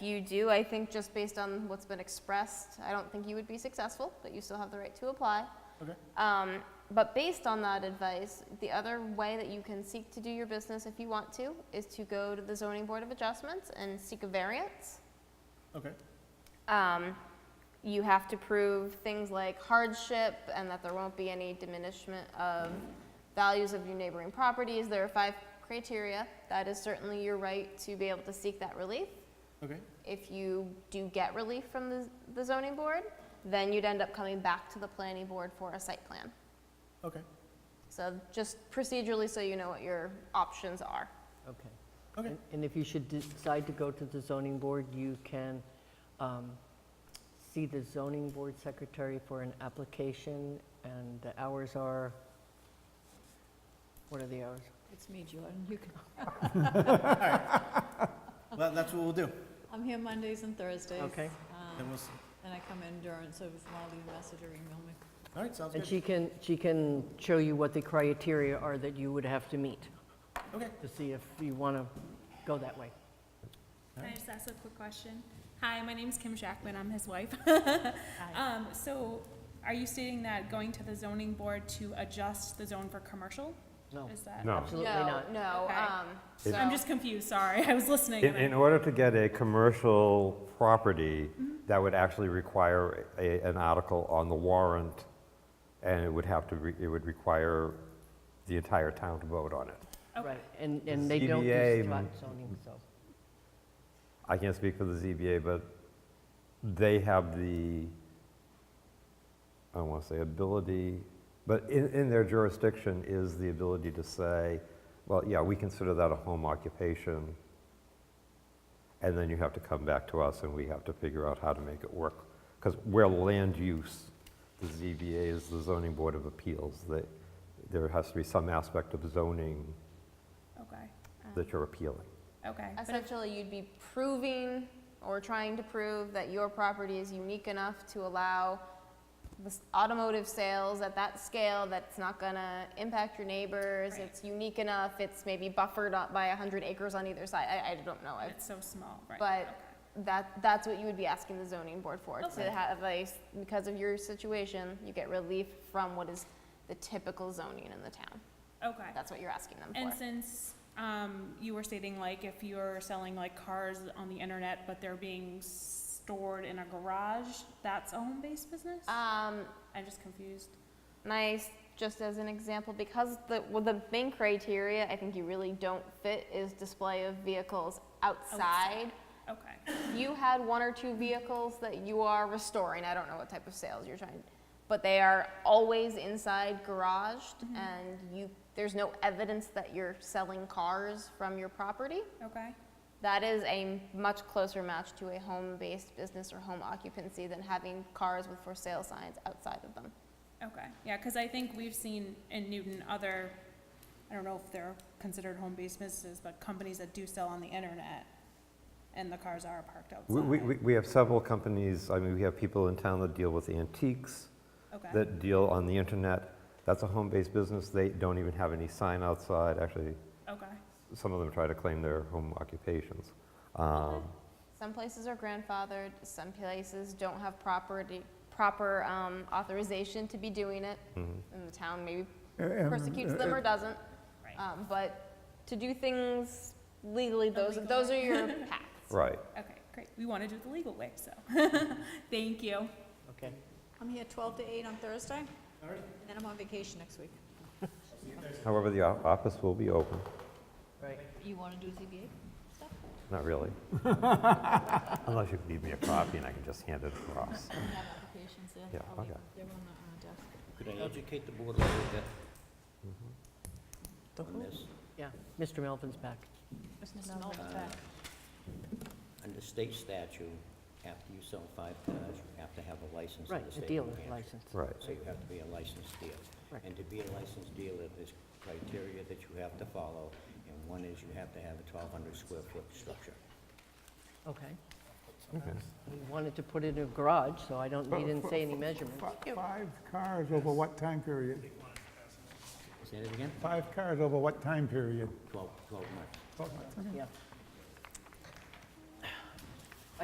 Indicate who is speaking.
Speaker 1: you do, I think just based on what's been expressed, I don't think you would be successful, but you still have the right to apply.
Speaker 2: Okay.
Speaker 1: Um, but based on that advice, the other way that you can seek to do your business if you want to is to go to the zoning board of adjustments and seek a variance.
Speaker 2: Okay.
Speaker 1: Um, you have to prove things like hardship and that there won't be any diminishment of values of your neighboring properties. There are five criteria. That is certainly your right to be able to seek that relief.
Speaker 2: Okay.
Speaker 1: If you do get relief from the, the zoning board, then you'd end up coming back to the planning board for a site plan.
Speaker 2: Okay.
Speaker 1: So just procedurally, so you know what your options are.
Speaker 3: Okay.
Speaker 2: Okay.
Speaker 3: And- And if you should decide to go to the zoning board, you can um, see the zoning board secretary for an application, and the hours are, what are the hours?
Speaker 4: It's me, Jordan. You can,
Speaker 2: Well, that's what we'll do.
Speaker 4: I'm here Mondays and Thursdays.
Speaker 3: Okay.
Speaker 4: um,
Speaker 2: Then we'll s-
Speaker 4: And I come in during, so if you want to leave a message or email me.
Speaker 2: All right, sounds
Speaker 3: And
Speaker 2: good.
Speaker 3: she can, she can show you what the criteria are that you would have to meet,
Speaker 2: Okay.
Speaker 3: to see if you want to go that way.
Speaker 5: Can I just ask a quick question? Hi, my name's Kim Shackman, I'm his wife. Um, so, are you stating that going to the zoning board to adjust the zone for commercial?
Speaker 3: No,
Speaker 5: Is that?
Speaker 6: No.
Speaker 3: absolutely not.
Speaker 1: No, no.
Speaker 5: Okay.
Speaker 1: Um, so
Speaker 6: It-
Speaker 5: I'm just confused, sorry, I was listening.
Speaker 6: In,
Speaker 5: and I-
Speaker 6: in order to get a commercial property, that would actually require a, an article on the warrant, and it would have to, re- it would require the entire town to vote on it.
Speaker 5: Okay.
Speaker 3: Right, and, and they don't
Speaker 6: ZBA
Speaker 3: do spot
Speaker 6: m-
Speaker 3: zoning, so.
Speaker 6: I can't speak for the ZBA, but they have the, I don't want to say ability, but in, in their jurisdiction is the ability to say, well, yeah, we consider that a home occupation. And then you have to come back to us and we have to figure out how to make it work. Because we're land use, the ZBA is the zoning board of appeals. They, there has to be some aspect of zoning
Speaker 5: Okay,
Speaker 6: that you're appealing.
Speaker 5: okay. But if-
Speaker 1: Essentially, you'd be proving or trying to prove that your property is unique enough to allow the s- automotive sales at that scale that's not gonna impact your neighbors.
Speaker 5: Right.
Speaker 1: It's unique enough, it's maybe buffered up by hundred acres on either side, I, I don't know. I-
Speaker 5: It's so small, right?
Speaker 1: But
Speaker 5: okay.
Speaker 1: That, that's what you would be asking the zoning board for,
Speaker 5: Okay.
Speaker 1: to have a, s- because of your situation, you get relief from what is the typical zoning in the town.
Speaker 5: Okay.
Speaker 1: That's what you're asking them
Speaker 5: And
Speaker 1: for.
Speaker 5: since, um, you were stating like if you're selling like cars on the internet, but they're being stored in a garage, that's a home-based business?
Speaker 1: Um,
Speaker 5: I'm just confused.
Speaker 1: nice just as an example because the well, the main criteria I think you really don't fit is display of vehicles outside.
Speaker 5: Okay.
Speaker 1: You had one or two vehicles that you are restoring. I don't know what type of sales you're trying, but they are always inside garaged, and you there's no evidence that you're selling cars from your property.
Speaker 5: Okay.
Speaker 1: That is a much closer match to a home-based business or home occupancy than having cars with for sale signs outside of them.
Speaker 5: Okay, yeah, because I think we've seen in Newton other, I don't know if they're considered home-based businesses, but companies that do sell on the internet, and the cars are parked outside.
Speaker 6: We, we, we have several companies, I mean, we have people in town that deal with antiques,
Speaker 5: Okay,
Speaker 6: that deal on the internet. That's a home-based business, they don't even have any sign outside, actually,
Speaker 5: okay,
Speaker 6: some of them try to claim their home occupations. Um,
Speaker 1: Some places are grandfathered, some places don't have property, proper um, authorization to be doing it, and the town maybe persecutes them or doesn't.
Speaker 5: right,
Speaker 1: Um, But to do things legally, those,
Speaker 5: legal
Speaker 1: those are
Speaker 5: way.
Speaker 1: your paths.
Speaker 6: Right,
Speaker 5: okay, great, we want to do it the legal way, so, thank you.
Speaker 3: Okay.
Speaker 4: I'm here 12 to 8 on Thursday. And then I'm on vacation next week.
Speaker 6: however, the o- office will be open,
Speaker 3: Right.
Speaker 4: You want to do ZBA?
Speaker 6: not really. Unless you leave me a copy and I can just hand it across.
Speaker 4: I have applications there.
Speaker 6: Yeah,
Speaker 4: I'll leave them.
Speaker 6: okay.
Speaker 4: They're on the on the uh, desk.
Speaker 7: Could I educate the board a little bit
Speaker 3: The
Speaker 7: on
Speaker 3: whole-
Speaker 7: this?
Speaker 3: Yeah, Mr. Melvin's back.
Speaker 4: Mr. Melvin's back.
Speaker 7: Uh, Under state statute, after you sell five cars, you have to have a license in
Speaker 3: Right,
Speaker 7: the
Speaker 3: a
Speaker 7: state of New
Speaker 3: dealer's
Speaker 7: Hampshire.
Speaker 3: license.
Speaker 6: Right,
Speaker 7: So you have to be a licensed dealer.
Speaker 3: Right.
Speaker 7: And to be a licensed dealer, there's criteria that you have to follow, and one is you have to have a 1,200 square foot structure.
Speaker 3: Okay.
Speaker 6: okay.
Speaker 3: We wanted to put it in a garage, so I don't, he didn't say any measurements.
Speaker 8: Five cars over what time period?
Speaker 7: Say that again?
Speaker 8: Five cars over what time period?
Speaker 7: 12, 12 months.
Speaker 8: Twelve months, okay.
Speaker 3: Yeah,